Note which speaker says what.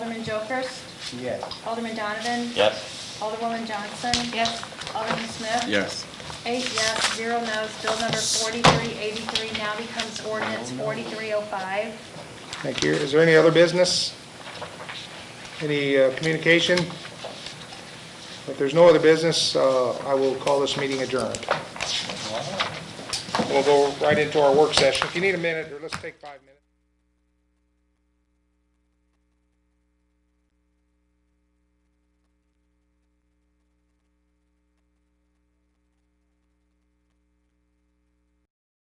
Speaker 1: Alderman Jokers,
Speaker 2: Yes.
Speaker 1: Alderman Donovan,
Speaker 3: Yes.
Speaker 1: Alderwoman Johnson. Yes. Alderman Smith.
Speaker 4: Yes.
Speaker 1: Eight yes, zero no's. Bill number 4383 now becomes ordinance 4305.
Speaker 2: Thank you. Is there any other business? Any uh, communication? If there's no other business, uh, I will call this meeting adjourned. We'll go right into our work session. If you need a minute, or let's take five minutes.